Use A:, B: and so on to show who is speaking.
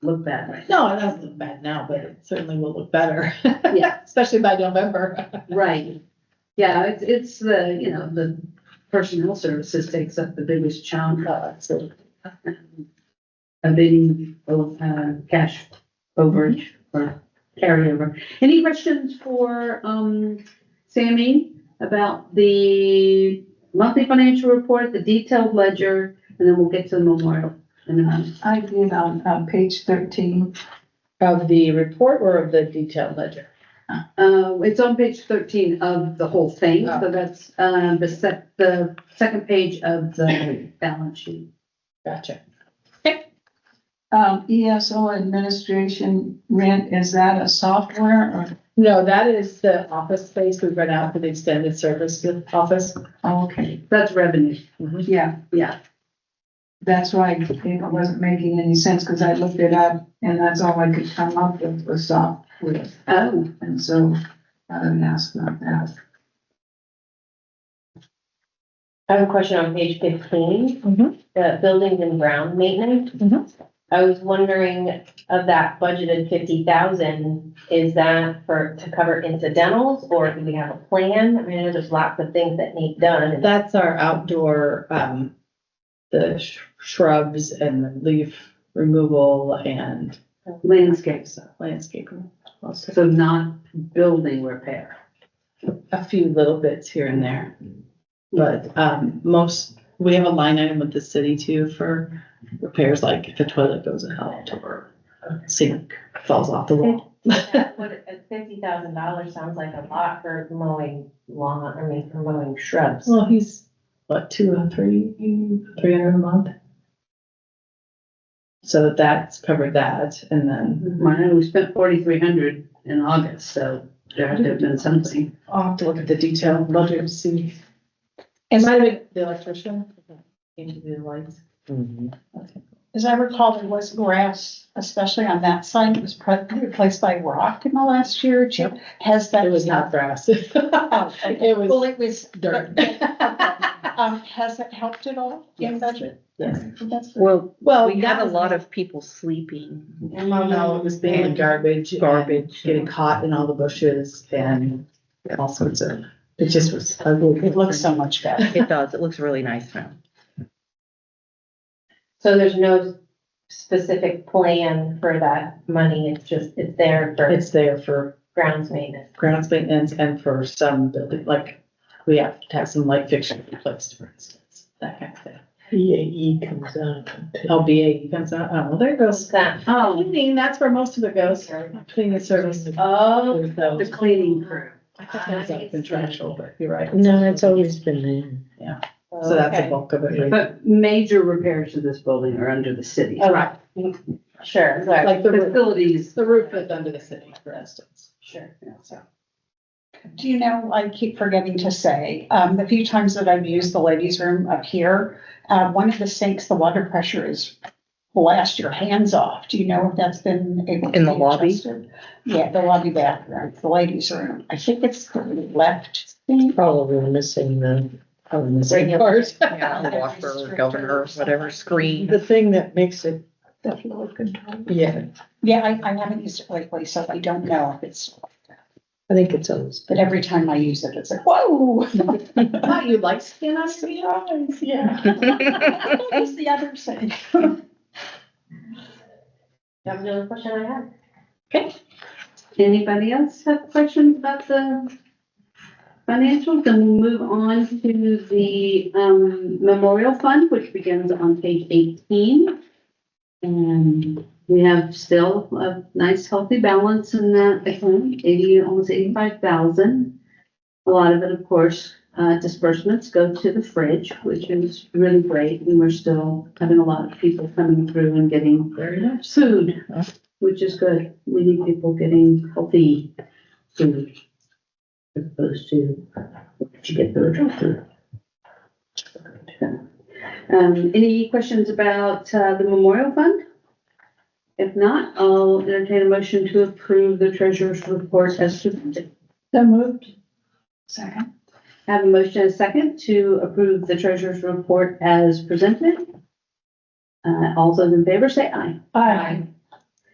A: look bad right
B: No, it doesn't look bad now, but it certainly will look better.
A: Yeah.
B: Especially by November.
A: Right. Yeah, it's, it's the, you know, the personnel services takes up the biggest chunk. uh, so, A big, uh, cash overage or carryover. Any questions for, um, Sammy about the monthly financial report, the detailed ledger, and then we'll get to the memorial in a minute.
C: I did on, on page thirteen.
B: Of the report or of the detailed ledger?
A: Uh, it's on page thirteen of the whole thing, so that's, um, the sec the second page of the balance sheet.
B: Gotcha.
C: Um, ESO administration rent, is that a software or,
B: No, that is the office space we rent out for the extended service office.
C: oh, okay,
A: That's revenue,
C: yeah,
A: yeah.
C: that's why it wasn't making any sense because I looked it up and that's all I could come up with was software.
A: Oh,
C: And so I didn't ask about that.
D: I have a question on page fifteen,
B: Mhm.
D: the buildings and ground
B: Mhm.
D: maintenance. I was wondering of that budgeted fifty thousand, is that for, to cover incidentals or do we have a plan? I mean, I know there's lots of things that need done. and-
B: That's our outdoor, um, the sh- shrubs and leaf removal and
A: landscapes,
B: landscaping. Also,
A: so not building repair.
B: a few little bits here and there. But, um, most, we have a line item with the city too for repairs, like if a toilet goes out or a sink falls off the wall.
D: What, fifty thousand dollars sounds like a lot for mowing lawn, I mean, for mowing shrubs.
B: Well, he's, what, two or three, three hundred a month? So that's covered that, and then
A: I know we spent forty-three hundred in August, so there had to have been something.
B: I'll have to look at the detail, ledger to see. It might have been the electrician. Came to do the lights.
E: As I recall, there was grass, especially on that side, it was pre- replaced by rock in the last year or two. Has that?
B: It was not grass. It
E: Oh, okay. Well,
B: was
E: it was.
B: dirt.
E: Um, has it helped at all in budget?
B: Yes.
E: That's-
F: Well,
B: Well,
F: we
B: that
F: had a
B: was-
F: lot of people sleeping.
B: Well, no, it was being in garbage. and
F: Garbage.
B: Getting caught in all the bushes and all sorts of, it just was ugly.
E: It looks so much better.
F: It does, it looks really nice now.
D: So there's no specific plan for that money, it's just, it's there for
B: It's there for
D: grounds maintenance.
B: grounds maintenance and for some building, like, we have to have some light fixture replaced, for instance, that kind of thing.
G: BAE E comes out.
B: Oh, BAE comes out, oh, well, there
D: What's
B: goes.
D: that?
A: Oh,
B: Cleaning, that's where most of it goes, cleaning service.
D: Oh,
B: There's no-
A: the cleaning crew.
B: I thought that was like contractual, but you're right.
G: No, it's always been there.
B: So that's the
D: okay.
B: bulk of it, right?
A: But major repairs to this building are under the city.
D: Oh, right. Sure, right,
B: like the roof,
A: Facilities,
B: the roof that's under the city, for instance.
D: sure.
B: Yeah, so.
E: Do you know, I keep forgetting to say, um, the few times that I've used the ladies' room up here, uh, one of the sinks, the water pressure is blast your hands off. Do you know if that's been able to
F: In the
E: be
F: lobby?
E: adjusted? Yeah, the lobby bathroom, the ladies' room. I think it's the left sink.
G: Probably missing the, probably missing
B: Right part.
F: Yeah, the Whopper, governor, whatever screen.
G: the thing that makes it,
C: The flow control.
G: yeah,
E: Yeah, I, I haven't used it lately, so I don't know if it's,
G: I think it's always.
E: but every time I use it, it's like, whoa.
B: Wow, you like skin on your knee?
E: Yeah. That's the other side.
D: That was the only question I had.
A: anybody else have questions about the financials? Then we'll move on to the, um, memorial fund, which begins on page eighteen. And we have still a nice healthy balance in that account, eighty, almost eighty-five thousand. A lot of it, of course, uh, disbursements go to the fridge, which is really great, and we're still having a lot of people coming through and getting
B: Very much.
A: food, which is good. We need people getting healthy food as opposed to what you get through a drive through. Um, any questions about, uh, the memorial fund? If not, I'll entertain a motion to approve the treasurer's report as presented.
C: So moved. Second.
A: Have a motion and a second to approve the treasurer's report as presented. Uh, all those in favor say aye.
C: Aye.